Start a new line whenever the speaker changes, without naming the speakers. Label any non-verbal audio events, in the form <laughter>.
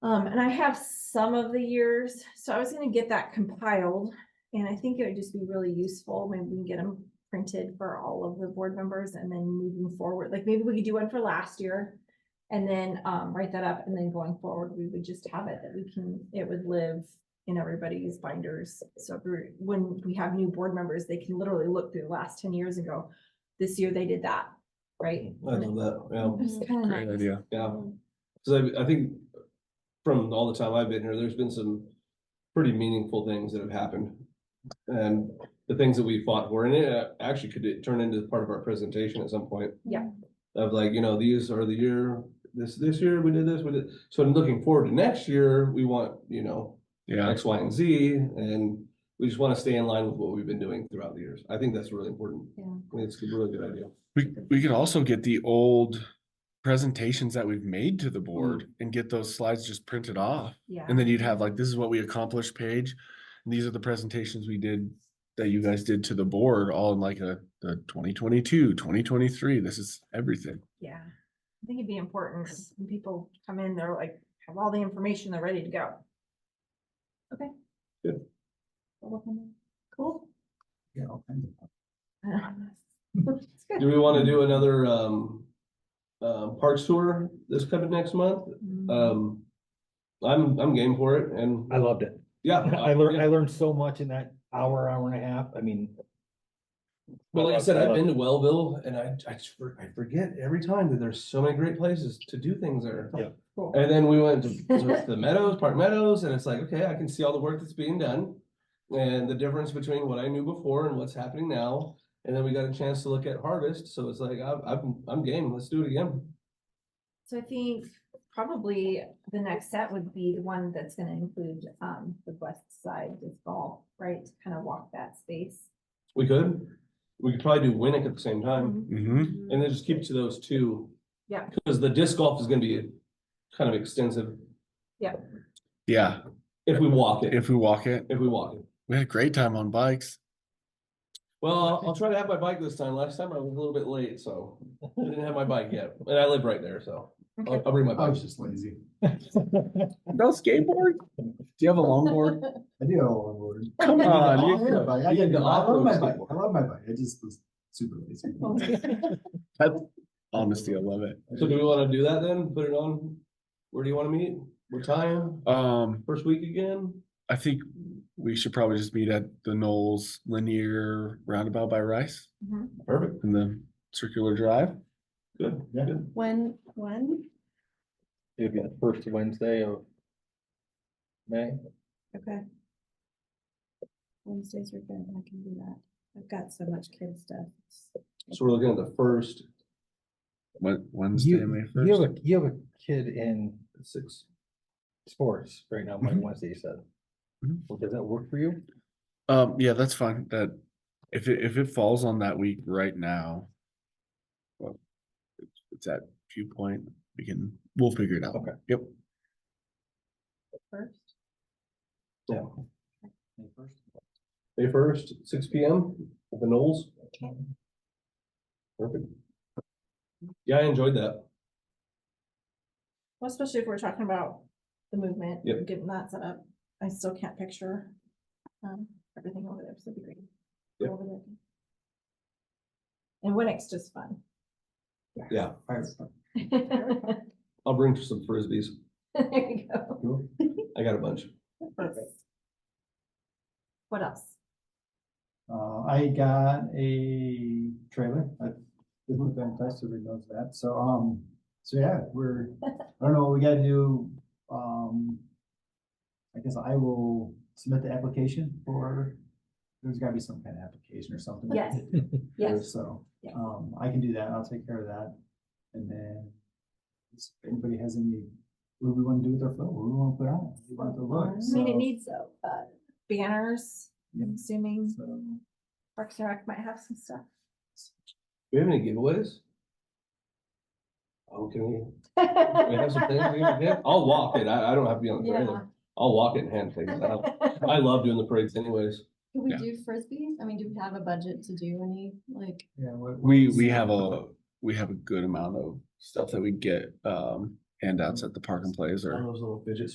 Um, and I have some of the years, so I was gonna get that compiled, and I think it would just be really useful when we can get them printed for all of the board members and then moving forward, like maybe we could do one for last year. And then, um, write that up, and then going forward, we would just have it that we can, it would live in everybody's binders. So if we're- when we have new board members, they can literally look through the last ten years and go, this year they did that, right?
I love that, yeah,
It's kinda
Great
nice.
idea.
yeah, because I, I think from all the time I've been here, there's been some pretty meaningful things that have happened. And the things that we fought for, and it uh, actually could turn into part of our presentation at some point.
Yeah.
Of like, you know, these are the year, this, this year we did this, we did, so I'm looking forward to next year, we want, you know,
Yeah,
X, Y, and Z, and we just want to stay in line with what we've been doing throughout the years. I think that's really important.
Yeah.
I think It's a really good idea.
we, we could also get the old presentations that we've made to the board and get those slides just printed off.
Yeah.
And then you'd have like, this is what we accomplished page. And these are the presentations we did that you guys did to the board, all in like a, the 2022, 2023. This is everything.
Yeah, I think it'd be important, 'cause when people come in, they're like, have all the information, they're ready to go. Okay.
Good.
I'll look on that. Cool.
Yeah, all kinds of-
It's good.
<laughs> Do we want to do another um uh parks tour this coming next month?
Mm.
Uh,
Um, I'm I'm game for it and
I loved it.
yeah.
<laughs> I learned,
yeah.
I learned so much in that hour, hour and a half. I mean.
Well, like I
loved-
said, I've
loved
been
it.
to Wellville and I I just for- I forget every time that there's so many great places to do things there.
Yeah.
Cool.
And then we went to to the Meadows, Park Meadows, and it's like, okay, I can see all the work that's being done. And the difference between what I knew before and what's happening now. And then we got a chance to look at harvest, so it's like, I'm I'm I'm game, let's do it again.
So I think probably the next set would be the one that's gonna include, um, the west side of golf, right? To Kind of walk that space.
We could, we could probably do Winnick at the same time.
Um,
Mm-hmm.
And then just keep to those two.
Yeah.
Because the disc golf is gonna be kind of extensive
Yeah,
if we walk it,
if we walk it,
if we walk it.
we had a great time on bikes.
Well, I'll- I'll try to have my bike this time. Last time I was a little bit late, so I didn't have my bike yet, and I live right there, so I'll,
Okay.
I'll bring my
I
bike.
was just lazy.
No skateboard? Do you have a longboard?
I do have a longboard.
Come
I
on.
love my bike. I
you
can-
did the
I love my
off-road
bike. I
skateboard.
love my bike. I just was super lazy.
<laughs> Honestly, I love it.
So do we wanna do that then? Put it on? Where do you wanna meet? What time?
Um,
First week again?
I think we should probably just meet at the Knowles Linear Roundabout by Rice
Mhm.
Perfect,
in the circular drive.
good,
Yeah.
good.
When, when?
It'd be the first Wednesday of May.
Okay. Wednesdays are good, I can do that. I've got so much kid stuff.
So we're looking at the first,
Wed- Wednesday, May
You, you
first.
have a, you have a kid in
six,
sports right now, Monday,
Mhm.
Wednesday, you said.
Mhm.
Well, Does that work for you?
Um, yeah, that's fine. That, if it, if it falls on that week right now. well, it's- It's at viewpoint, we can, we'll figure it out.
Okay.
Yep.
First.
yeah. May first, six P M, at the Knolls. Perfect. Yeah, I enjoyed that.
Well, especially if we're talking about the movement,
Yep.
and getting that set up, I still can't picture um everything over there, so it'd be great.
Yep.
Over there. And Winnick's just fun. <laughs>
Yeah,
There
I'll bring some frisbees.
you go.
I got a bunch.
Perfect. What else?
Uh, I got a trailer. I didn't fantastic, everybody knows that. So, um, so yeah, we're, I don't know, we gotta do, um, I guess I will submit the application for, there's gotta be some kind of application or something. <laughs>
Yes,
here,
yes.
So,
Yeah.
um, I can do that, I'll take care of that, and then. If anybody has any, what do we wanna do with our film, what do we wanna put on, we want it to look,
I mean, it
so-
needs uh banners,
Yeah.
I'm assuming
so.
Parks and Rec might have some stuff.
Do we have any giveaways? Oh, can we, we have some things we can
Yeah.
give? I'll walk it. I, I don't have to be on the parade. I'll walk it and hand things out. I love doing the parades anyways.
Could we
Yeah.
do frisbees? I mean, do we have a budget to do any, like,
Yeah, what-
We,
what's-
we have a, we have a good amount of stuff that we get, um, handouts at the park and plays or.
All those little fidget